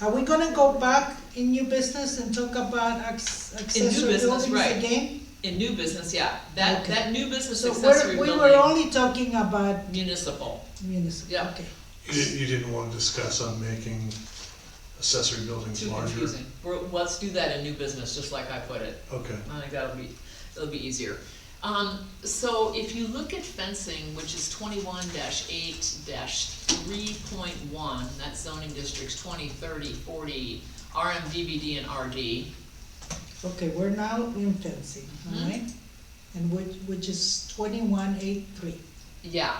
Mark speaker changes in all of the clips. Speaker 1: Are we gonna go back in new business and talk about acc- accessory
Speaker 2: business,
Speaker 1: buildings
Speaker 2: right.
Speaker 1: again?
Speaker 2: In new business, yeah, that,
Speaker 1: Okay.
Speaker 2: that new business
Speaker 1: So we're,
Speaker 2: accessory
Speaker 1: we were
Speaker 2: building,
Speaker 1: only talking about
Speaker 2: municipal.
Speaker 1: municipal,
Speaker 2: Yeah.
Speaker 1: okay.
Speaker 3: You, you didn't wanna discuss on making accessory buildings
Speaker 2: Too
Speaker 3: larger?
Speaker 2: confusing. We're, let's do that in new business, just like I put it.
Speaker 3: Okay,
Speaker 2: I think that'll be, that'll be easier. Um, so if you look at fencing, which is twenty-one eight three point one, that's zoning districts 20, 30, 40, RM, DVD, and RD.
Speaker 1: Okay, we're now in fencing,
Speaker 2: Mhm.
Speaker 1: alright? And which, which is twenty-one eight three.
Speaker 2: Yeah,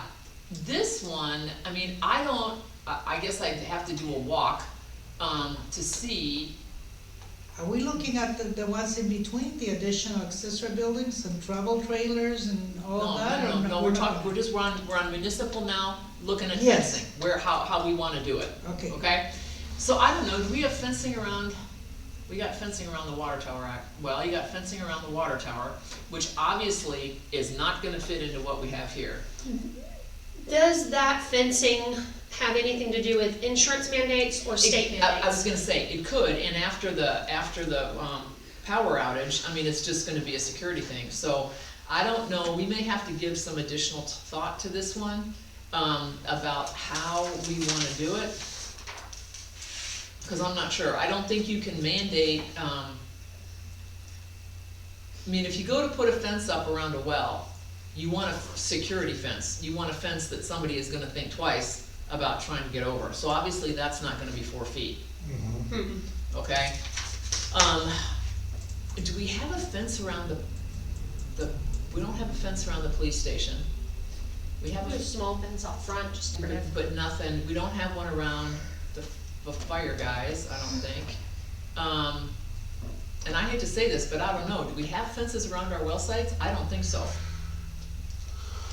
Speaker 2: this one, I mean, I don't, I, I guess I'd have to do a walk, um, to see,
Speaker 1: Are we looking at the, the ones in between, the additional accessory buildings and travel trailers and all
Speaker 2: No,
Speaker 1: that?
Speaker 2: no,
Speaker 1: or
Speaker 2: no, no, we're
Speaker 1: not?
Speaker 2: talking, we're just, we're on, we're on municipal now, looking at
Speaker 1: Yes.
Speaker 2: fencing, where, how, how we wanna do it,
Speaker 1: Okay,
Speaker 2: okay? So I don't know, do we have fencing around, we got fencing around the water tower, act- well, you got fencing around the water tower, which obviously is not gonna fit into what we have here.
Speaker 4: Does that fencing have anything to do with insurance mandates or state
Speaker 2: It- I- I was
Speaker 4: mandates?
Speaker 2: gonna say, it could, and after the, after the, um, power outage, I mean, it's just gonna be a security thing, so I don't know, we may have to give some additional t- thought to this one, um, about how we wanna do it. Cause I'm not sure, I don't think you can mandate, um, I mean, if you go to put a fence up around a well, you want a security fence, you want a fence that somebody is gonna think twice about trying to get over, so obviously that's not gonna be four feet,
Speaker 3: mhm.
Speaker 4: Hmm.
Speaker 2: okay? Um, do we have a fence around the, the, we don't have a fence around the police station. We have
Speaker 4: uh, Put a
Speaker 2: a,
Speaker 4: small fence out front, just to
Speaker 2: but-
Speaker 4: protect.
Speaker 2: but nothing, we don't have one around the, the fire guys, I
Speaker 3: Mm-hmm.
Speaker 2: don't think. Um, and I hate to say this, but I don't know, do we have fences around our well sites? I don't think so.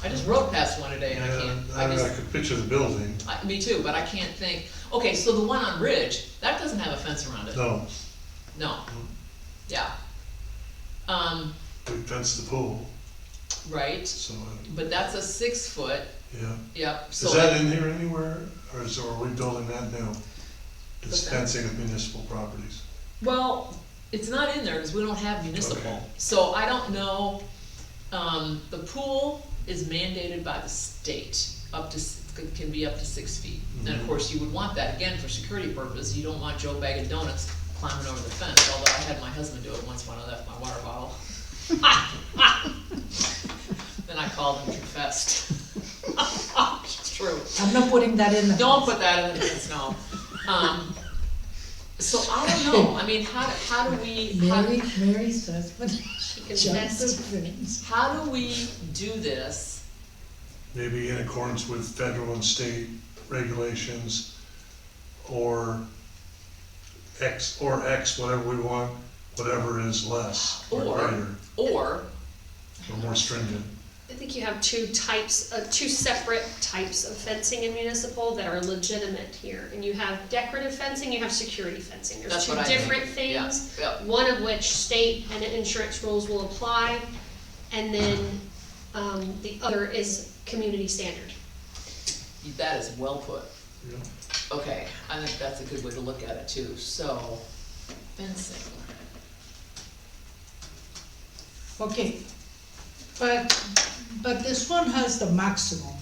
Speaker 2: I just rode past one today and I
Speaker 3: Yeah,
Speaker 2: can't,
Speaker 3: I
Speaker 2: I
Speaker 3: mean,
Speaker 2: just,
Speaker 3: I could picture the building,
Speaker 2: I, me too, but I can't think, okay, so the one on Ridge, that doesn't have a fence around it,
Speaker 3: no,
Speaker 2: no, yeah. Um,
Speaker 3: we fenced the pool,
Speaker 2: right,
Speaker 3: so, uh,
Speaker 2: but that's a six foot,
Speaker 3: yeah.
Speaker 2: yep, so.
Speaker 3: Is that in here anywhere, or is, or are we building that now? It's
Speaker 2: The fence?
Speaker 3: fencing of municipal properties.
Speaker 2: Well, it's not in there, cause we don't have municipal,
Speaker 3: Okay.
Speaker 2: so I don't know, um, the pool is mandated by the state, up to, s- c- can be up to six feet. And of
Speaker 3: Mhm.
Speaker 2: course, you would want that, again, for security purposes, you don't want Joe Bag of Donuts climbing over the fence, although I had my husband do it once when I left my water bottle. Then I called and confessed. It's true.
Speaker 1: I'm not putting that in the.
Speaker 2: Don't put that in the minutes, no. Um, so I don't know, I mean, how, do- how do we, how do,
Speaker 1: Mary, Mary says, but
Speaker 4: She
Speaker 1: just the
Speaker 4: confessed.
Speaker 1: things.
Speaker 2: how do we do this?
Speaker 3: Maybe in accordance with federal and state regulations, or X, or X, whatever we want, whatever is less, or
Speaker 2: Or-
Speaker 3: greater,
Speaker 2: Or,
Speaker 3: or more stringent.
Speaker 4: I think you have two types, uh, two separate types of fencing in municipal that are legitimate here. And you have decorative fencing, you have security fencing. There's
Speaker 2: That's
Speaker 4: two
Speaker 2: what I think,
Speaker 4: different
Speaker 2: yeah,
Speaker 4: things.
Speaker 2: yeah,
Speaker 4: One of which state and insurance rules will apply. And then, um, the other is community standard.
Speaker 2: that is well put.
Speaker 3: Yeah.
Speaker 2: Okay, I think that's a good way to look at it too, so, fencing.
Speaker 1: Okay, but, but this one has the maximum.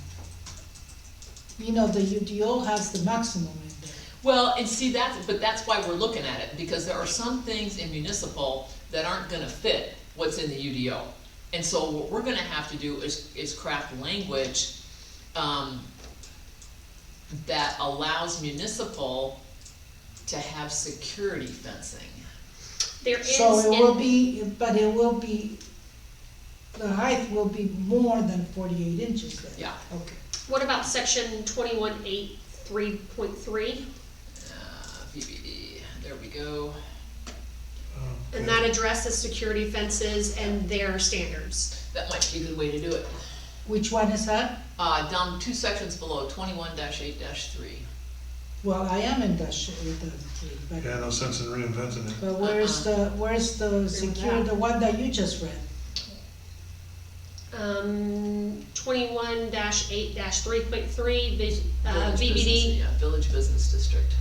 Speaker 1: You know, the UDO has the maximum in there.
Speaker 2: Well, and see, that's, but that's why we're looking at it, because there are some things in municipal that aren't gonna fit what's in the UDO. And so what we're gonna have to do is, is craft language, um, that allows municipal to have security fencing.
Speaker 4: There is.
Speaker 1: So it will
Speaker 4: in-
Speaker 1: be, but it will be, the height will be more than forty-eight inches then.
Speaker 2: Yeah.
Speaker 1: Okay.
Speaker 4: What about section twenty-one eight three point three?
Speaker 2: Uh, VBD, there we go.
Speaker 3: Um,
Speaker 4: And that addresses security fences and their standards.
Speaker 2: That might be a good way to do it.
Speaker 1: Which one is that?
Speaker 2: Uh, down two sections below, twenty-one eight three.
Speaker 1: Well, I am industrial, it doesn't say, but,
Speaker 3: Yeah, no sense in reinventing it.
Speaker 1: but where's the,
Speaker 4: Uh-huh.
Speaker 1: where's the secure,
Speaker 4: that.
Speaker 1: the one that you just read?
Speaker 4: Um, twenty-one eight three point three, uh,
Speaker 2: Village business-
Speaker 4: VBD
Speaker 2: Yeah, village business district.